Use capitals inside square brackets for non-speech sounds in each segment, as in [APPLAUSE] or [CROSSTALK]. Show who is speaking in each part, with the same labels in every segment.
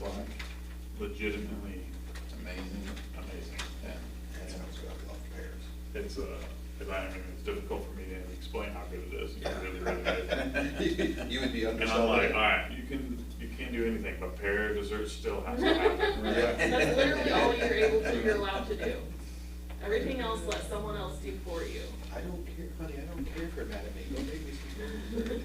Speaker 1: like,
Speaker 2: legitimately
Speaker 1: amazing,
Speaker 2: amazing.
Speaker 1: yeah.
Speaker 3: That sounds good, I love pears.
Speaker 2: It's, uh, if I, I mean, it's difficult for me to explain how good it is. It's really, really good.
Speaker 3: [LAUGHS] You would be
Speaker 2: And I'm
Speaker 3: underselling
Speaker 2: like,
Speaker 3: it.
Speaker 2: all right, you can, you can't do anything, but pear dessert still has to happen.
Speaker 3: [LAUGHS] Yeah.
Speaker 4: That's literally all you're able to,
Speaker 2: [LAUGHS]
Speaker 4: you're allowed to do. Everything else, let someone else do for you.
Speaker 3: I don't care, honey, I don't care for mad at me, don't make me see good.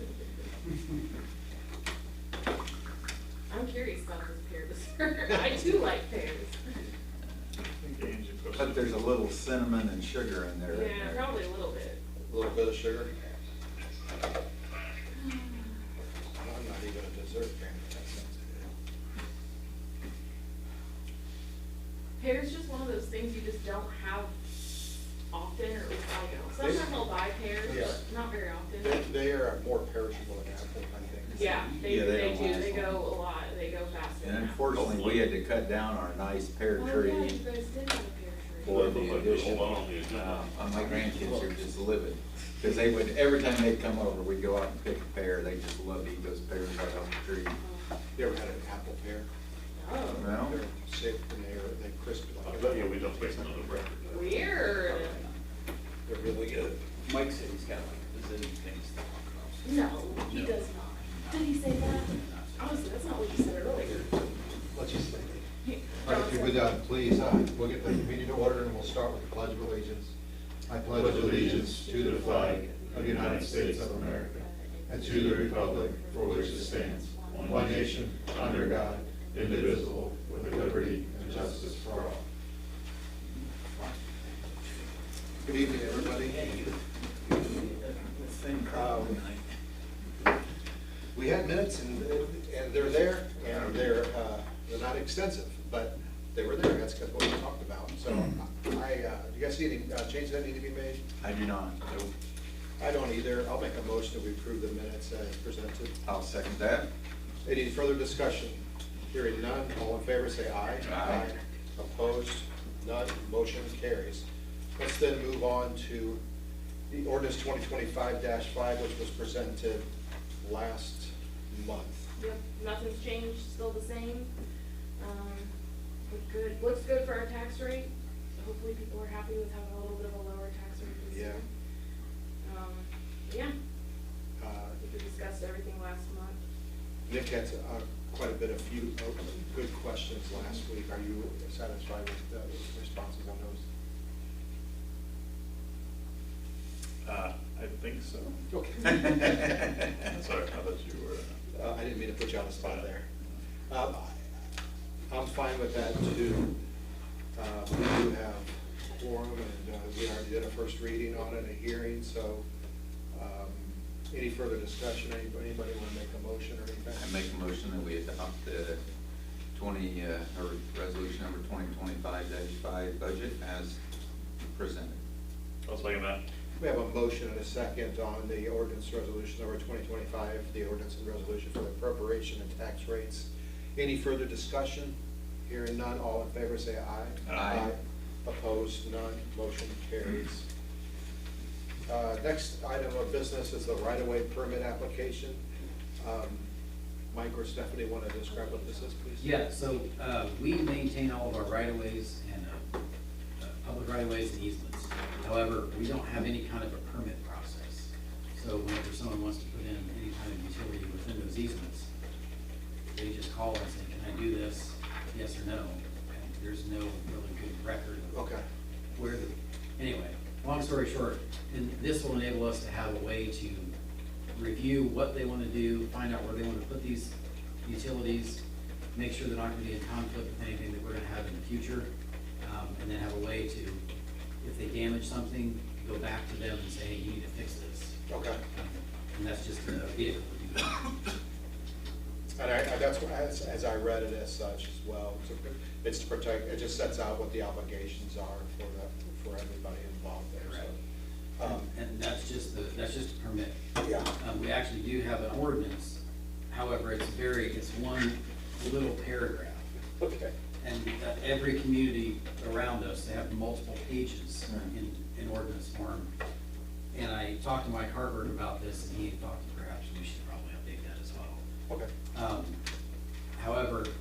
Speaker 4: I'm curious about this pear dessert. [LAUGHS] I do like pears.
Speaker 2: Games you put-
Speaker 5: But there's a little cinnamon and sugar in there.
Speaker 4: Yeah, probably a little bit.
Speaker 3: A Little bit of sugar. I'm not even a dessert fan, but that sounds good.
Speaker 4: Pear's just one of those things you just don't have often or, I don't know. Sometimes I'll buy pears, but not very often.
Speaker 3: They, they are more perishable than apple, I think.
Speaker 4: Yeah, they,
Speaker 5: Yeah, they
Speaker 4: they
Speaker 5: don't
Speaker 4: do,
Speaker 5: last
Speaker 4: they
Speaker 5: long.
Speaker 4: go a lot, they go faster
Speaker 5: And
Speaker 4: than
Speaker 5: unfortunately, we had to cut down our nice pear
Speaker 4: apples. Oh, yeah, you
Speaker 5: tree
Speaker 4: guys did have a pear tree.
Speaker 5: for the addition. Uh, and My grandkids are just living, because they would, every time they'd come over, we'd go out and pick a pear, they just loved to eat those pears right off the tree.
Speaker 3: You ever had an apple pear?
Speaker 4: Oh,
Speaker 5: No?
Speaker 3: They're shaped and they're, they crisp
Speaker 2: I
Speaker 3: like.
Speaker 2: bet you we don't waste another record.
Speaker 4: weird.
Speaker 3: They're really good.
Speaker 1: Mike said he's got like a zillion things to talk
Speaker 4: No, he does not. Did he say that? Honestly, that's not what you said earlier.
Speaker 3: What you say?
Speaker 6: All right, if you would, uh, please, uh, we'll get the meeting to order and we'll start with the pledge of allegiance. I pledge allegiance to the flag of the United States of America and to the republic for which it stands, one nation, under God, indivisible, with liberty and justice for all.
Speaker 3: Good evening, everybody.
Speaker 1: about.
Speaker 3: Um, We had minutes and, and they're there, and they're, uh, they're not extensive, but they were there, that's what we talked about. So I, uh, do you guys see any uh, changes that need to be made?
Speaker 5: I do not.
Speaker 3: I don't either. I'll make a motion that we approve the minutes as presented.
Speaker 5: I'll second that.
Speaker 3: Any further discussion? Hearing none, all in favor say aye.
Speaker 5: Aye.
Speaker 3: Opposed, none, motion carries. Let's then move on to the ordinance twenty twenty-five five, which was presented last month.
Speaker 4: Yep, nothing's changed, still the same. Um, look good, looks good for our tax rate. Hopefully people are happy with having a little bit of a lower tax rate this year. Um, yeah,
Speaker 3: Uh,
Speaker 4: we discussed everything last month.
Speaker 3: Nick had uh, quite a bit of few, uh, good questions last week. Are you satisfied with the responses on those?
Speaker 2: Uh, I think so.
Speaker 3: Okay.
Speaker 2: [LAUGHS] Sorry, I thought you were.
Speaker 3: Uh, I didn't mean to put you on the spot there. Um, I- I'm fine with that too. Um, We do have quorum and uh, we already did a first reading on it, a hearing, so um, any further discussion, anybody, anybody want to make a motion or anything?
Speaker 5: I make a motion that we adopt the twenty, uh, or resolution number twenty twenty-five five budget as presented.
Speaker 2: I'll second that.
Speaker 3: We have a motion and a second on the ordinance resolution number 2025, the ordinance and resolution for the appropriation and tax rates. Any further discussion? Hearing none, all in favor say aye.
Speaker 2: Aye.
Speaker 3: Opposed, none, motion carries. Uh, Next item of business is the right-of-way permit application. Um, Mike or Stephanie want to describe what this is, please?
Speaker 7: Yeah, so, uh, we maintain all of our right-of-ways and, uh, uh, public right-of-ways and easements. However, we don't have any kind of a permit process. So whenever someone wants to put in any kind of utility within those easements, they just call and say, can I do this? Yes or no? And there's no really good record of
Speaker 3: Okay.
Speaker 7: where the, anyway, long story short, and this will enable us to have a way to review what they wanna do, find out where they wanna put these utilities, make sure they're not gonna be in conflict with anything that we're gonna have in the future, um, and then have a way to, if they damage something, go back to them and say, hey, you need to fix this.
Speaker 3: Okay.
Speaker 7: Um, And that's just a vehicle to do that.
Speaker 3: And I, I- that's what, as, as I read it as such as well, it's to- it's to protect, it just sets out what the obligations are for the, for everybody involved there, so. um,
Speaker 7: And that's just the, that's just a permit.
Speaker 3: Yeah,
Speaker 7: Um, we actually do have an ordinance, however, it's very, it's one little paragraph.
Speaker 3: Um, okay.
Speaker 7: And uh, every community around us, they have multiple pages in, in ordinance form. And I talked to Mike Harvard about this, and he thought perhaps we should probably update that as well.
Speaker 3: Okay,
Speaker 7: Um, However,